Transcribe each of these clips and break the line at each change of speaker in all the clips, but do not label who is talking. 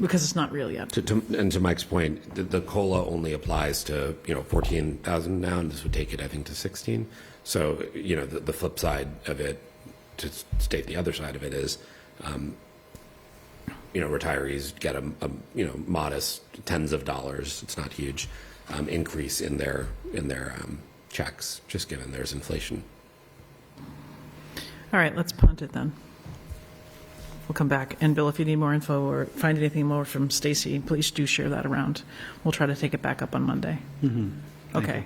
because it's not real yet.
To, to, and to Mike's point, the, the COLA only applies to, you know, 14,000 now, and this would take it, I think, to 16. So, you know, the, the flip side of it, to s- state the other side of it is, um, you know, retirees get a, a, you know, modest tens of dollars, it's not huge, um, increase in their, in their, um, checks, just given there's inflation.
All right, let's punt it then. We'll come back. And Bill, if you need more info or find anything more from Stacy, please do share that around. We'll try to take it back up on Monday. Okay.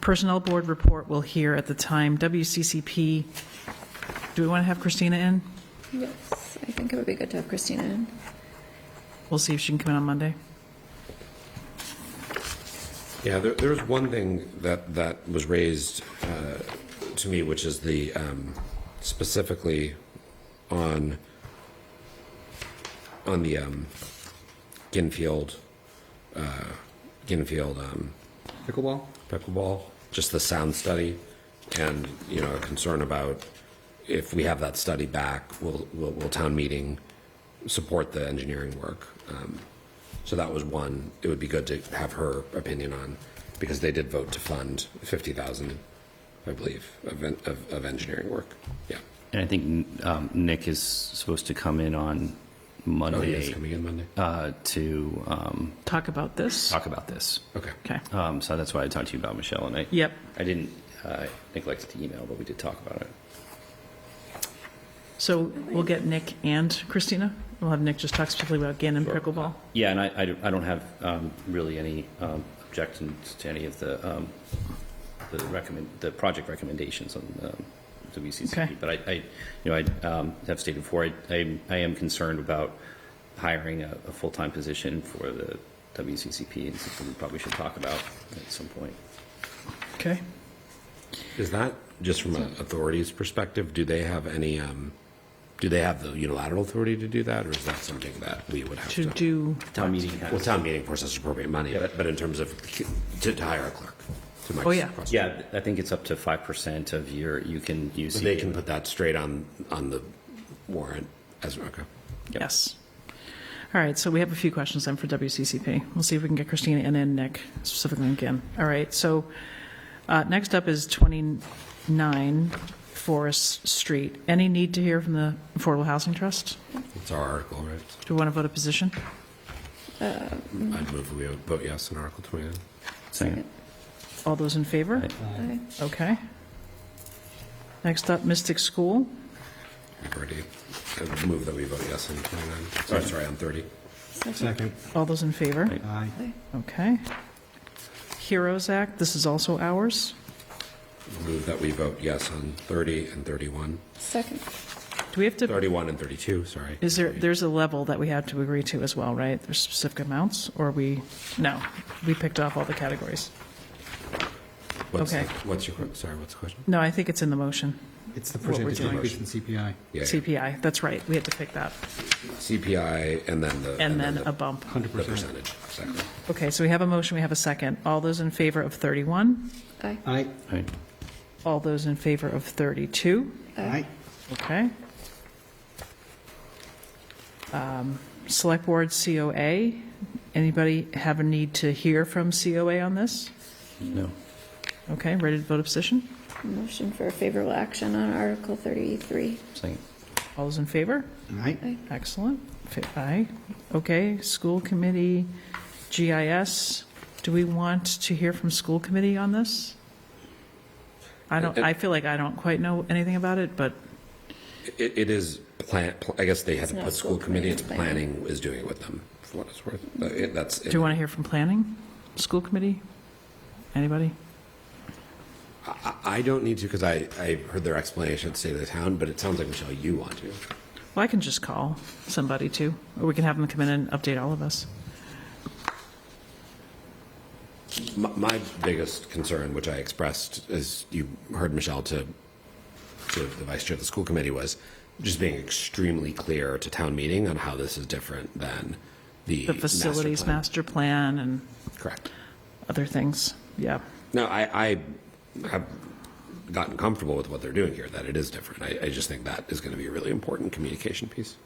Personnel Board report we'll hear at the time. WCCP, do we want to have Christina in?
Yes, I think it would be good to have Christina in.
We'll see if she can come in on Monday.
Yeah, there, there was one thing that, that was raised uh, to me, which is the, um, specifically on, on the um, Ginfield, uh, Ginfield um,
Pickleball?
pickleball, just the sound study, and, you know, a concern about if we have that study back, will, will, will town meeting support the engineering work? Um, So that was one, it would be good to have her opinion on, because they did vote to fund fifty thousand, I believe, of, en- of, of engineering work, yeah.
And I think um, Nick is supposed to come in on
Oh, he is
Monday
coming in Monday,
uh, to um,
Talk about this?
talk about this.
okay.
Okay.
Um, So that's why I talked to you about Michelle, and I.
Yep.
I didn't uh, neglect to email, but we did talk about it.
So we'll get Nick and Christina. We'll have Nick just talk specifically about Gannon pickleball.
Yeah, and I, I don't- I don't have um, really any um, objections to any of the, um, the recommend, the project recommendations on um,
Okay.
WCCP. But I, I, you know, I um, have stated before, I- I, I am concerned about hiring a, a full-time position for the WCCP, and something we probably should talk about at some point.
Okay.
Is that, just from an authority's perspective, do they have any, um, do they have the unilateral authority to do that, or is that something that we would have to?
To do,
Town meeting
Well,
has,
town meeting, of course, has appropriate money, but, but in terms of, to to hire a clerk, to Mike's
Oh, yeah.
question.
yeah, I think it's up to 5% of your, you can use.
They can put that straight on, on the warrant as, okay.
yes. All right, so we have a few questions then for WCCP. We'll see if we can get Christina and then Nick specifically again. All right, so uh, next up is 29 Forest Street. Any need to hear from the Affordable Housing Trust?
It's our article, right?
Do we want to vote a position? Mm-hmm.
I'd move we would vote yes on Article 29.
Second.
All those in favor?
Aye.
Okay. Next up, Mystic School.
We've already, I'd move that we vote yes on 29. Sorry, sorry, on 30.
Second.
All those in favor?
Aye.
Okay. Heroes Act, this is also ours.
Move that we vote yes on 30 and 31.
Second.
Do we have to
31 and 32, sorry.
Is there, there's a level that we have to agree to as well, right? There's specific amounts, or we, no, we picked off all the categories.
What's the-
okay.
What's your, que- sorry, what's the question?
No, I think it's in the motion.
It's the
What we're
percentage
doing.
increase in CPI.
Yeah, yeah.
CPI, that's right, we had to pick that.
CPI and then the.
And then
the-
a bump.
The percentage, exactly.
Okay, so we have a motion, we have a second. All those in favor of 31?
Aye.
Aye.
Aye.
All those in favor of 32?
Aye.
Okay. Um, Select Board COA, anybody have a need to hear from COA on this?
No.
Okay, ready to vote a position?
Motion for favorable action on Article 33.
Second.
All those in favor?
Aye.
Excellent. F- Aye. Okay, school committee, GIS. Do we want to hear from school committee on this? I don't, I feel like I don't quite know anything about it, but,
It, it is plan, pl- I guess they had to
not
put school committee, it's planning
planning.
is doing it with them, for what it's worth. Uh, it- That's,
do you want to hear from planning? School committee? Anybody?
I, I don't need to, because I, I heard their explanation at State of the Town, but it sounds like, Michelle, you want to.
Well, I can just call somebody too, or we can have them come in and update all of us.
My, my biggest concern, which I expressed, as you heard Michelle to, to the vice chair of the school committee, was just being extremely clear to town meeting on how this is different than the.
The facilities master plan and
plan. Correct.
other things, yeah.
No, I, I have gotten comfortable with what they're doing here, that it is different. I, I just think that is going to be a really important communication piece.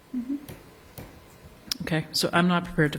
Okay, so I'm not prepared to